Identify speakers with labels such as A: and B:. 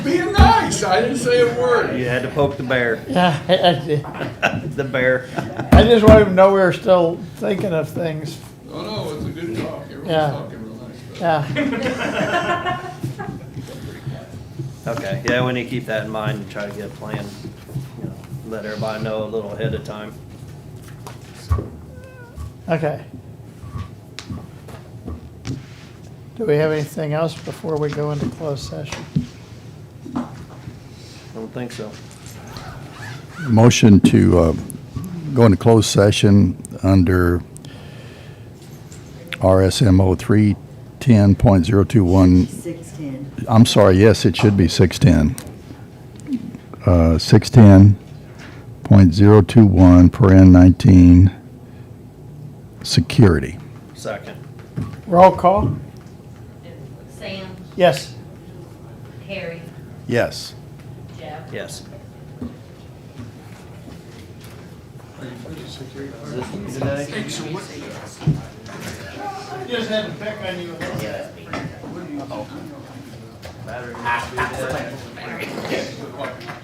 A: Being nice, I didn't say a word.
B: You had to poke the bear,
C: Yeah, I- I, did.
B: the bear.
C: I just wanted to know we were still thinking of things.
A: Oh, no, it's a good talk. Everyone's
C: Yeah.
A: talking real nice. but-
C: Yeah,
B: Okay, yeah, we need to keep that in mind and try to get a plan, you know, let everybody know a little ahead of time.
C: okay. Do we have anything else before we go into closed session?
B: Don't think so.
D: Motion to uh, go into closed session under RSMO 310.021.
E: Six-ten.
D: I'm sorry, yes, it should be 610. Uh, 610.021 per N19, security.
B: Second.
C: Roll call?
F: Sam,
C: Yes.
F: Harry,
D: Yes.
F: Jeff.
B: Yes.
C: Just had to pick on you a little bit.